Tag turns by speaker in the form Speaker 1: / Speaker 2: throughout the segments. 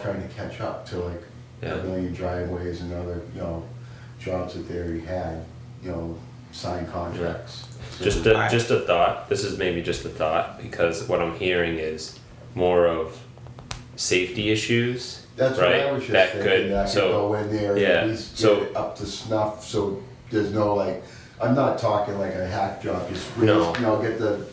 Speaker 1: trying to catch up to like
Speaker 2: Yeah.
Speaker 1: a million driveways and other, you know, jobs that they already had, you know, signed contracts. So-
Speaker 2: Just a, just a thought. This is maybe just a thought because what I'm hearing is more of safety issues.
Speaker 1: That's what I
Speaker 2: right.
Speaker 1: was just
Speaker 2: that
Speaker 1: thinking,
Speaker 2: could
Speaker 1: that I could
Speaker 2: so
Speaker 1: go in there and
Speaker 2: yeah,
Speaker 1: at least
Speaker 2: so-
Speaker 1: get it up to snuff, so there's no like, I'm not talking like a hack job, just really,
Speaker 2: No.
Speaker 1: you know, get the,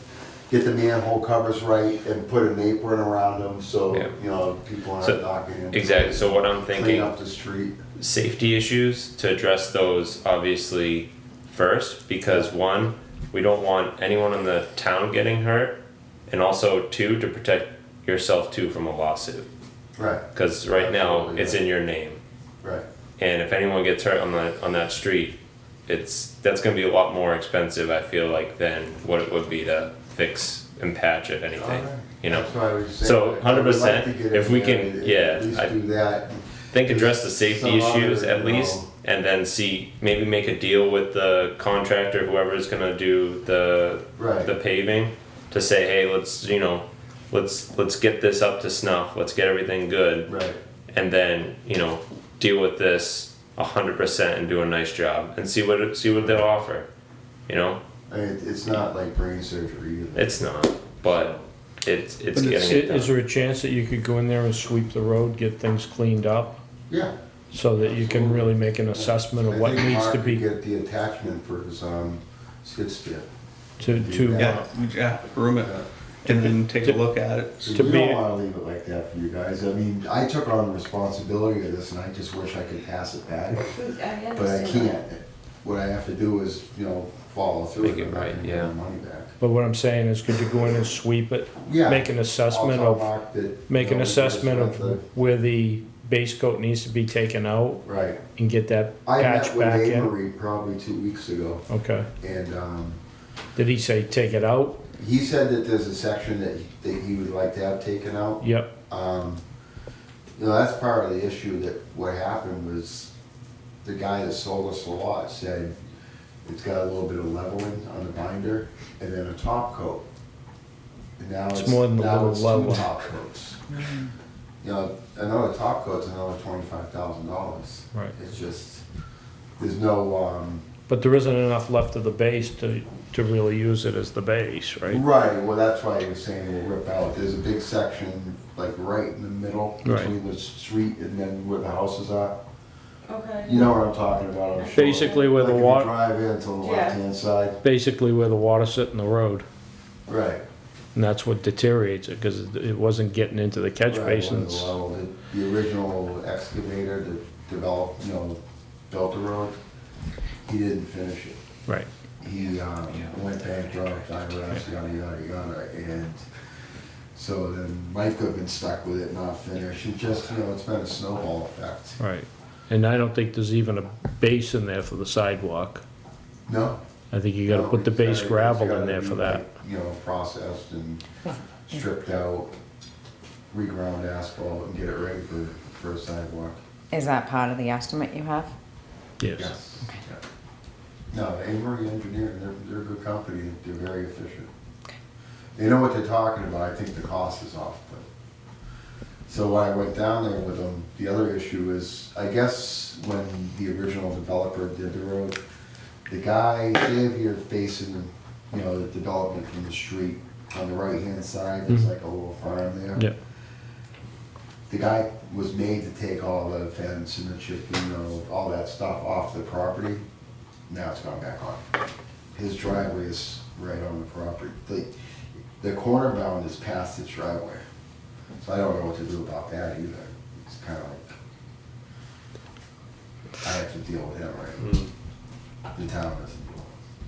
Speaker 1: get the manhole covers right and put an apron around them, so,
Speaker 2: Yeah.
Speaker 1: you know, people
Speaker 2: So-
Speaker 1: aren't knocking in.
Speaker 2: exactly. So what I'm
Speaker 1: Clean
Speaker 2: thinking,
Speaker 1: up the street,
Speaker 2: safety issues to address those obviously first because one, we don't want anyone in the town getting hurt, and also two to protect yourself too from a lawsuit
Speaker 1: right,
Speaker 2: because right now
Speaker 1: Absolutely,
Speaker 2: it's
Speaker 1: yeah.
Speaker 2: in your name.
Speaker 1: right,
Speaker 2: and if anyone gets hurt on that on that street, it's that's going to be a lot more expensive. I feel like than what it would be to fix and patch if anything.
Speaker 1: Alright.
Speaker 2: You know,
Speaker 1: that's what I was saying.
Speaker 2: So,
Speaker 1: like, I would like
Speaker 2: 100%,
Speaker 1: to get
Speaker 2: if
Speaker 1: in
Speaker 2: we
Speaker 1: there
Speaker 2: can-
Speaker 1: and
Speaker 2: yeah,
Speaker 1: At least
Speaker 2: I-
Speaker 1: do that,
Speaker 2: think address the safety
Speaker 1: Some
Speaker 2: issues
Speaker 1: other,
Speaker 2: at
Speaker 1: you
Speaker 2: least,
Speaker 1: know-
Speaker 2: and then see maybe make a deal with the contractor, whoever is going to do the
Speaker 1: Right.
Speaker 2: the paving, to say, hey, let's you know, let's let's get this up to snuff. Let's get everything good.
Speaker 1: right,
Speaker 2: and then you know deal with this hundred percent and do a nice job and see what see what they'll offer. You know,
Speaker 1: I mean, it- it's not like brain surgery either.
Speaker 2: it's not, but it's it's
Speaker 3: But
Speaker 2: getting
Speaker 3: is,
Speaker 2: it
Speaker 3: it-
Speaker 2: done.
Speaker 3: is there a chance that you could go in there and sweep the road, get things cleaned up?
Speaker 1: Yeah.
Speaker 3: So that you can really make an assessment
Speaker 1: I
Speaker 3: of what
Speaker 1: think
Speaker 3: needs
Speaker 1: Mark
Speaker 3: to
Speaker 1: could
Speaker 3: be
Speaker 1: Get the attachment for his, um, skid steer.
Speaker 3: to, to,
Speaker 4: Yeah,
Speaker 3: uh,
Speaker 4: we- yeah, room it, and then take a look at it.
Speaker 1: So
Speaker 3: To
Speaker 1: you
Speaker 3: be-
Speaker 1: don't wanna leave it like that for you guys, I mean, I took on responsibility of this and I just wish I could pass it back, but I can't. What I have to do is, you know, follow through.
Speaker 2: Make
Speaker 1: and
Speaker 2: it
Speaker 1: I'm not
Speaker 2: right,
Speaker 1: gonna get
Speaker 2: yeah.
Speaker 1: my Money back.
Speaker 3: but what I'm saying is could you go in and sweep it?
Speaker 1: Yeah.
Speaker 3: Make an assessment
Speaker 1: I'll tell
Speaker 3: of,
Speaker 1: Mark that,
Speaker 3: make
Speaker 1: you
Speaker 3: an
Speaker 1: know, we just
Speaker 3: assessment
Speaker 1: went
Speaker 3: of where the base coat needs to be taken out
Speaker 1: the- Right,
Speaker 3: and get that
Speaker 1: I
Speaker 3: patch
Speaker 1: met with
Speaker 3: back in?
Speaker 1: Amory probably two weeks ago
Speaker 3: Okay.
Speaker 1: and, um,
Speaker 3: Did he say take it out?
Speaker 1: he said that there's a section that, he- that he would like to have taken out.
Speaker 3: Yep,
Speaker 1: Um, you know, that's part of the issue that what happened was the guy that sold us the lot said it's got a little bit of leveling on the binder and then a top coat. And now
Speaker 3: It's
Speaker 1: it's,
Speaker 3: more than the
Speaker 1: now
Speaker 3: little
Speaker 1: it's
Speaker 3: level.
Speaker 1: two top coats. You know, another top coat's another twenty-five thousand dollars.
Speaker 3: right.
Speaker 1: It's just, there's no, um,
Speaker 3: But there isn't enough left of the base to, to really use it as the base, right?
Speaker 1: Right, well, that's why I was saying we'll rip out, there's a big section, like, right in the middle,
Speaker 3: Right.
Speaker 1: between the street and then where the houses are.
Speaker 5: Okay.
Speaker 1: You know what I'm talking about, I'm sure.
Speaker 3: Basically where the
Speaker 1: Like, if you
Speaker 3: water,
Speaker 1: Drive in to the
Speaker 5: Yeah.
Speaker 1: left-hand side,
Speaker 3: basically where the water sit in the road.
Speaker 1: right.
Speaker 3: And that's what deteriorates it, because it it wasn't getting into the catch
Speaker 1: right, one of
Speaker 3: basins.
Speaker 1: The level. The- the original excavator that developed, you know, built the road, he didn't finish it.
Speaker 3: Right,
Speaker 1: he um, went bankrupt, I was, yada, yada, yada, and so then Mike could have been stuck with it not finished, and just, you know, it's been a snowball effect.
Speaker 3: right. And I don't think there's even a base in there for the sidewalk.
Speaker 1: No?
Speaker 3: I think you gotta put the base
Speaker 1: It's gotta- it's
Speaker 3: gravel
Speaker 1: gotta
Speaker 3: in there for
Speaker 1: be,
Speaker 3: that.
Speaker 1: like, You know, processed and stripped out, reground asphalt and get it ready for, for a sidewalk.
Speaker 6: Is that part of the estimate you have?
Speaker 3: Yes,
Speaker 1: Yeah. No, Amory Engineering, they're, they're a good company, they're very efficient. They know what they're talking about, I think the cost is off, but. So when I went down there with them, the other issue is, I guess when the original developer did the road, the guy, they have here facing, you know, the development from the street, on the right-hand side, there's
Speaker 3: Mhm.
Speaker 1: like a little farm there
Speaker 3: yeah,
Speaker 1: the guy was made to take all the fence and the chip, you know, all that stuff off the property. Now it's gone back on. His driveway is right on the property. The, the corner bound is past its driveway. So I don't know what to do about that either. It's kind of like, I have to deal with him, right?
Speaker 2: Mm.
Speaker 1: The town doesn't deal.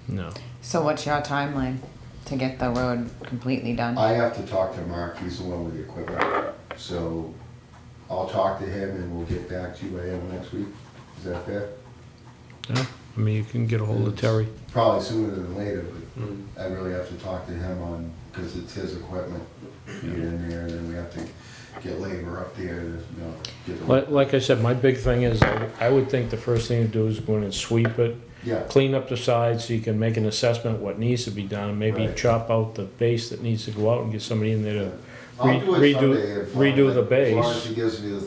Speaker 3: no.
Speaker 6: So what's your timeline to get the road completely done?
Speaker 1: I have to talk to Mark, he's the one with the equipment. So I'll talk to him and we'll get back to you by the end of next week. Is that fair?
Speaker 3: Yeah, I mean, you can get a hold of Terry.
Speaker 1: Probably sooner than later,
Speaker 2: Mm.
Speaker 1: but I really have to talk to him on, because it's his equipment. Get in there, then we have to get labor up there, to, you know, get the,
Speaker 3: Like, like I said, my big thing is, I I would think the first thing to do is go in and sweep it,
Speaker 1: yeah,
Speaker 3: clean up the sides so you can make an assessment what needs to be done. Maybe
Speaker 1: Right.
Speaker 3: chop out the base that needs to go out and get somebody in there to
Speaker 1: I'll do
Speaker 3: Re-
Speaker 1: it
Speaker 3: redo-
Speaker 1: someday. if-
Speaker 3: redo the
Speaker 1: As long
Speaker 3: base.
Speaker 1: as he gives me the